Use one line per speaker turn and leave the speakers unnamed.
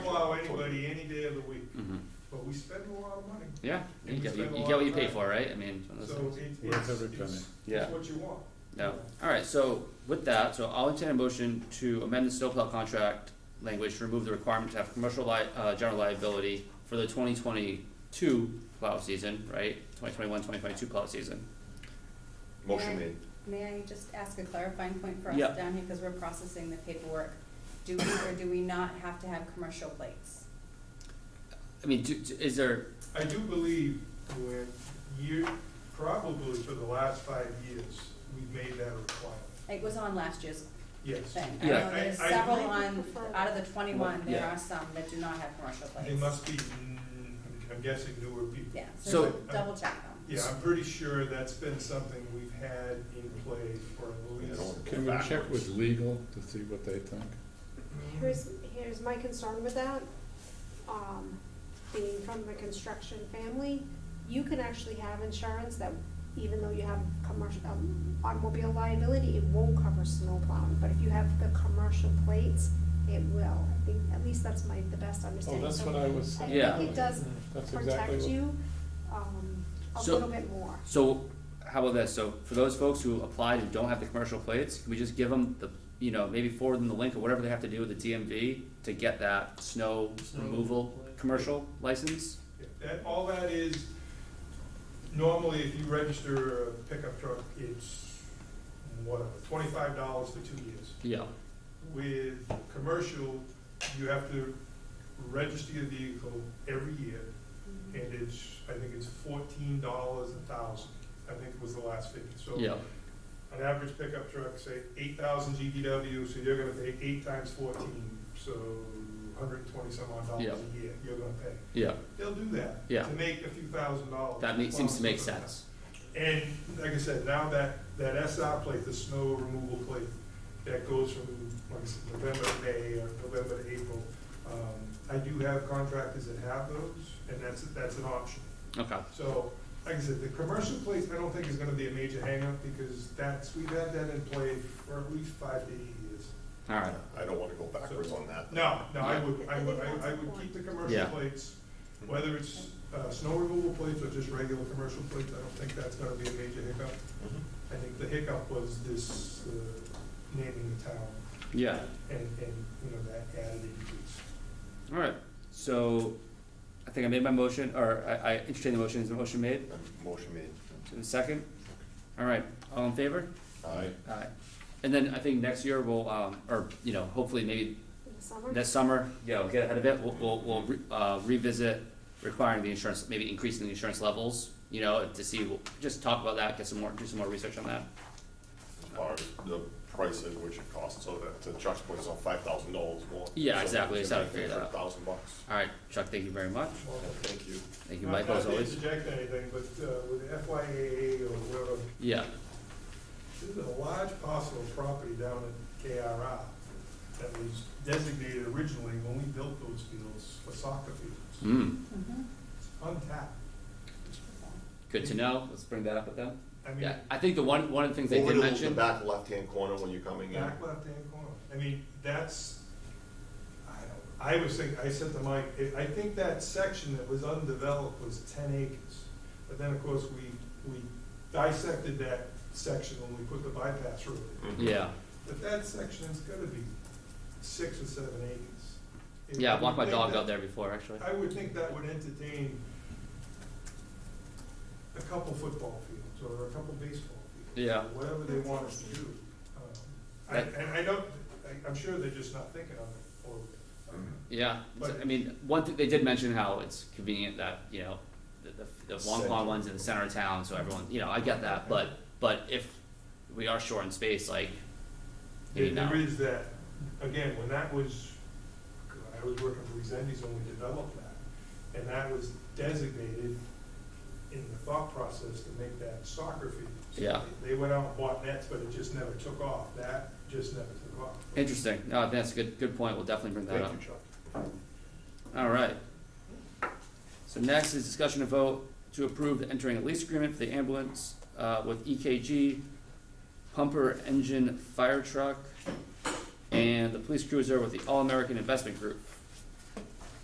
plow anybody any day of the week,
hmm
but we spend a lot of money.
Yeah,
And
you
we
get, you,
spend a
you
lot
get what
of
you pay
time.
for, right? I mean, one of those
So
things.
it-
Yeah,
it's,
every
it's,
Yeah.
it's what you want.
No. All right. So with that, so I'll entertain a motion to amend the snowplow contract language to remove the requirement to have commercial li- uh, general liability for the 2022 plow season, right? 2021, 2022 plow season.
Yeah.
Motion made.
May I just ask a clarifying point for us
Yeah.
down here, because we're processing the paperwork? Do we or do we not have to have commercial plates?
I mean, do, do- is there?
I do believe when you, probably for the last five years, we've made that a requirement,
It was on last year's
yes.
thing. I
Yeah.
know there's
I- I-
several
I-
on, out of the twenty-one, there
Yeah.
are some that do not have commercial plates.
They must be, mm, I'm guessing newer people.
Yeah,
So-
so just double check them.
Yeah, I'm pretty sure that's been something we've had in play for at
I
least.
don't wanna go
Can we check
backwards.
with legal to see what they think?
Here's, here's my concern with that, um, being from the construction family, you can actually have insurance that even though you have commercial, um, automobile liability, it won't cover snow plowing, but if you have the commercial plates, it will. I think, at least that's my, the best understanding.
Oh, that's
So
what I was
Yeah.
I think it does
That's exactly
protect
what.
you, um, a
So-
little bit more.
So how about this? So for those folks who applied and don't have the commercial plates, can we just give them the, you know, maybe forward them the link or whatever they have to do with the DMV to get that snow
Snow
removal
plate.
commercial license?
That, all that is, normally if you register a pickup truck, it's whatever, twenty-five dollars for two years.
Yeah.
With commercial, you have to register your vehicle every year, and it's, I think it's fourteen dollars a thousand, I think was the last figure. So
Yeah.
an average pickup truck, say eight thousand GVW, so you're gonna pay eight times fourteen, so hundred and twenty some odd dollars
Yeah.
a year you're gonna pay.
Yeah.
They'll do that.
Yeah.
To make a few thousand dollars.
That makes, seems to make sense.
And like I said, now that, that SR plate, the snow removal plate, that goes from, like I said, November to May or November to April. Um, I do have contractors that have those, and that's, that's an option.
Okay.
So, like I said, the commercial place, I don't think is gonna be a major hangup, because that's, we've had that in play for at least five to eight years.
All right.
I don't wanna go backwards on that.
No, no, I
Yeah.
would, I would, I I would keep the commercial
Yeah.
plates, whether it's, uh, snow removal plates or just regular commercial plates, I don't think that's gonna be a major hiccup.
Mhm.
I think the hiccup was this, uh, naming the town
Yeah.
and, and, you know, that added increase.
All right. So I think I made my motion, or I, I entertained the motion. Is the motion made?
Motion made.
Is it second? All right. All in favor?
Aye.
Aye. And then I think next year we'll, um, or, you know, hopefully maybe
In the summer,
this summer, you know, get ahead of it, we'll, we'll, we'll re- uh, revisit requiring the insurance, maybe increasing the insurance levels, you know, to see, we'll just talk about that, get some more, do some more research on that.
As far as the price at which it costs, so that, to Chuck's point, it's on five thousand dollars more.
Yeah,
So
exactly,
we
it's
should
how to
make it
figure that
for
out.
Thousand bucks.
All right, Chuck, thank you very much.
Well, Thank you.
Thank you,
Uh,
Michael, as always.
Not to interject anything, but, uh, with FYAA or whatever,
Yeah,
There's a large parcel of property down at KRI that was designated originally when we built those fields for soccer fields.
mm,
Mhm.
It's untapped.
good to know, let's bring that up with them.
I mean,
Yeah, I think the one, one of the things they
Over
did
to the-
mention,
The back left-hand corner when you're coming in.
back left-hand corner. I mean, that's, I don't, I was thinking, I said to Mike, I- I think that section that was undeveloped was ten acres. But then, of course, we, we dissected that section when we put the bypass road in.
Mhm.
yeah,
But that section is gonna be six or seven acres. It
yeah, I walked my
would
dog
make
out there before, actually.
that- I would think that would entertain a couple football fields or a couple baseball fields.
Yeah.
Whatever they want us to do. Um, I-
That-
And I don't, I- I'm sure they're just not thinking of it, or, um,
Yeah, it's-
But-
I mean, one thing, they did mention how it's convenient that, you know, the, the, the Wong Pong
Center.
one's in the center of town, so everyone, you know, I get that, but, but if we are short in space, like,
There,
maybe not.
there is that, again, when that was, I was working for Resendes when we developed that, and that was designated in the thought process to make that soccer field. So
Yeah.
they- They went out and bought nets, but it just never took off, that just never took off.
Interesting, no, I think that's a good, good point, we'll definitely bring that up.
Thank you, Chuck.
Alright. So next is discussion of vote to approve the entering a lease agreement for the ambulance, uh, with EKG, pumper engine fire truck, and the police cruiser with the All American Investment Group